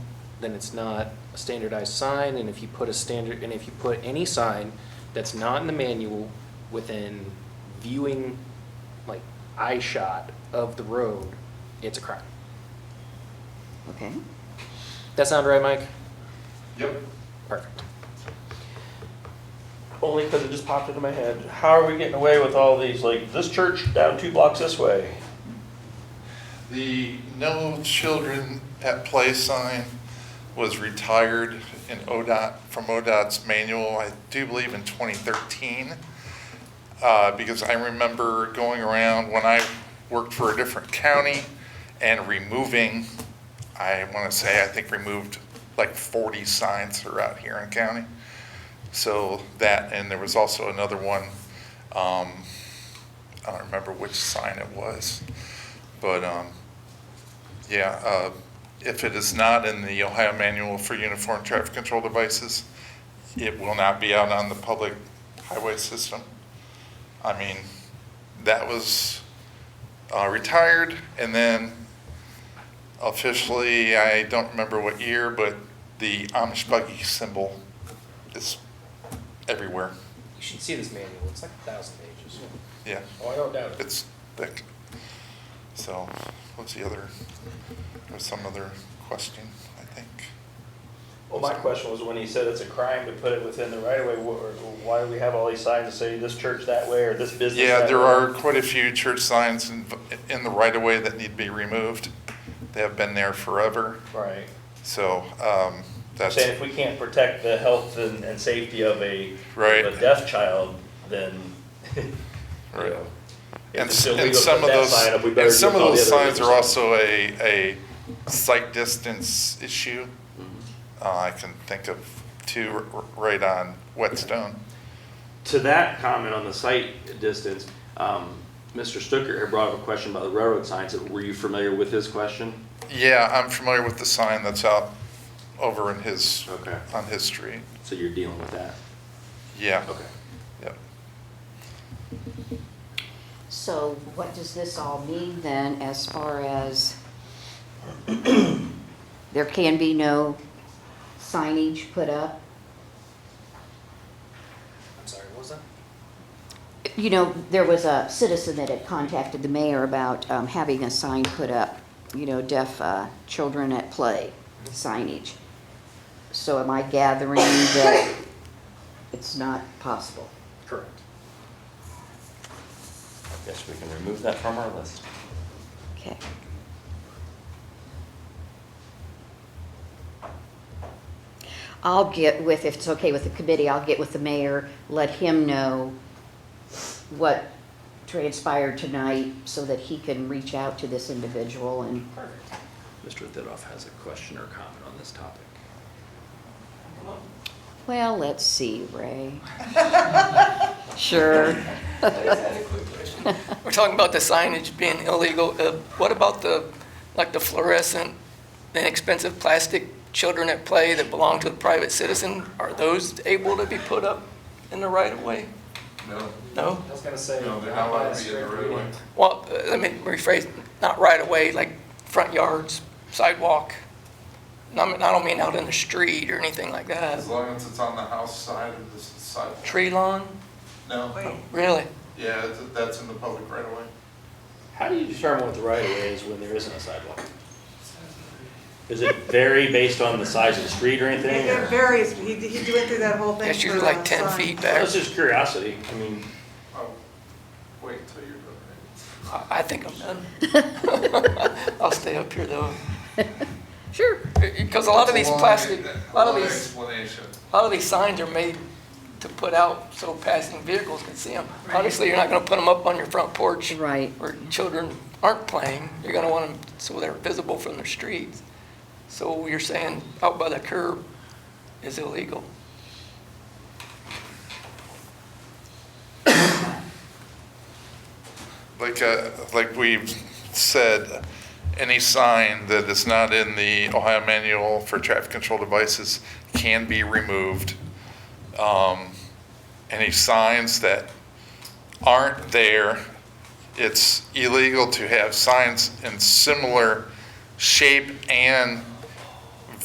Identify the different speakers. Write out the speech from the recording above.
Speaker 1: then it's not a standardized sign, and if you put a standard, and if you put any sign that's not in the manual within viewing, like, eye shot of the road, it's a crime.
Speaker 2: Okay.
Speaker 1: That sound right, Mike?
Speaker 3: Yep.
Speaker 1: Perfect.
Speaker 4: Only because it just popped into my head. How are we getting away with all these, like, this church down two blocks this way?
Speaker 3: The No Children at Play sign was retired in ODOT, from ODOT's manual, I do believe in 2013. uh, Because I remember going around when I worked for a different county and removing, I want to say, I think removed like 40 signs throughout Huron County. So that, and there was also another one, um, I don't remember which sign it was. But, um, yeah, uh, if it is not in the Ohio Manual for Uniform Traffic Control Devices, it will not be out on the public highway system. I mean, that was, uh, retired and then officially, I don't remember what year, but the Amish buggy symbol is everywhere.
Speaker 1: You should see this manual, it's like a thousand pages.
Speaker 3: Yeah,
Speaker 4: Oh, I don't doubt
Speaker 3: it's thick. So, what's the other, there's some other question, I think.
Speaker 4: Well, my question was when he said it's a crime to put it within the right of way, wh- or why do we have all these signs that say this church that way or this business
Speaker 3: Yeah,
Speaker 4: that
Speaker 3: there
Speaker 4: way?
Speaker 3: are quite a few church signs in, in the right of way that need to be removed. They have been there forever,
Speaker 4: Right.
Speaker 3: so, um, that's,
Speaker 4: Saying if we can't protect the health and, and safety of a,
Speaker 3: Right.
Speaker 4: of a deaf child, then, you
Speaker 3: right.
Speaker 4: know. if
Speaker 3: And,
Speaker 4: it's
Speaker 3: s-
Speaker 4: illegal
Speaker 3: and
Speaker 4: to
Speaker 3: some
Speaker 4: put
Speaker 3: of
Speaker 4: that
Speaker 3: those,
Speaker 4: sign up, we better
Speaker 3: and
Speaker 4: do
Speaker 3: some of
Speaker 4: all the
Speaker 3: those
Speaker 4: other
Speaker 3: signs are
Speaker 4: illegal
Speaker 3: also a, a site distance issue.
Speaker 4: Mm-hmm.
Speaker 3: Uh, I can think of two r- r- right on Whetstone.
Speaker 5: To that comment on the site distance, um, Mr. Stucker had brought up a question about the railroad signs. Were you familiar with his question?
Speaker 3: Yeah, I'm familiar with the sign that's out over in his,
Speaker 5: Okay.
Speaker 3: on his street.
Speaker 5: So you're dealing with that?
Speaker 3: Yeah.
Speaker 5: Okay.
Speaker 3: Yep.
Speaker 2: So what does this all mean then as far as there can be no signage put up?
Speaker 1: I'm sorry, what was that?
Speaker 2: You know, there was a citizen that had contacted the mayor about um, having a sign put up, you know, deaf uh, children at play signage. So am I gathering that it's not possible?
Speaker 1: Correct.
Speaker 6: Guess we can remove that from our list.
Speaker 2: Okay. I'll get with, if it's okay with the committee, I'll get with the mayor, let him know what transpired tonight so that he can reach out to this individual and,
Speaker 6: Mr. Thidoff has a question or comment on this topic.
Speaker 2: well, let's see, Ray. Sure.
Speaker 7: We're talking about the signage being illegal. Uh, What about the, like the fluorescent, inexpensive plastic children at play that belong to the private citizen? Are those able to be put up in the right of way? No. No?
Speaker 1: I was gonna say.
Speaker 3: No, they're not allowed to be in the right of way.
Speaker 7: Well, uh, let me rephrase, not right of way, like front yards, sidewalk. And I mean- I don't mean out in the street or anything like that.
Speaker 3: long as it's on the house side of the sidewalk.
Speaker 7: Tree lawn?
Speaker 3: No,
Speaker 7: Really?
Speaker 3: yeah, that's in the public right away.
Speaker 4: How do you determine what the right of way is when there isn't a sidewalk? Does it vary based on the size of the street or anything?
Speaker 8: It
Speaker 4: or-
Speaker 8: varies, he, he went through that whole thing.
Speaker 7: That's
Speaker 8: for
Speaker 7: usually like
Speaker 8: the
Speaker 7: 10
Speaker 8: sign.
Speaker 7: feet back.
Speaker 4: That's just curiosity. I mean,
Speaker 3: Oh, wait until you're done.
Speaker 7: I- I think I'm done. I'll stay up here though.
Speaker 2: Sure.
Speaker 7: Because a lot of these plastic, a lot of these,
Speaker 3: Explanation.
Speaker 7: a lot of these signs are made to put out so passing vehicles can see them. Obviously, you're not gonna put them up on your front porch.
Speaker 2: Right.
Speaker 7: Where children aren't playing, you're gonna want them so they're visible from the streets. So you're saying out by the curb is illegal.
Speaker 3: Like, uh, like we've said, any sign that is not in the Ohio Manual for Traffic Control Devices can be removed. Um, Any signs that aren't there, it's illegal to have signs in similar shape and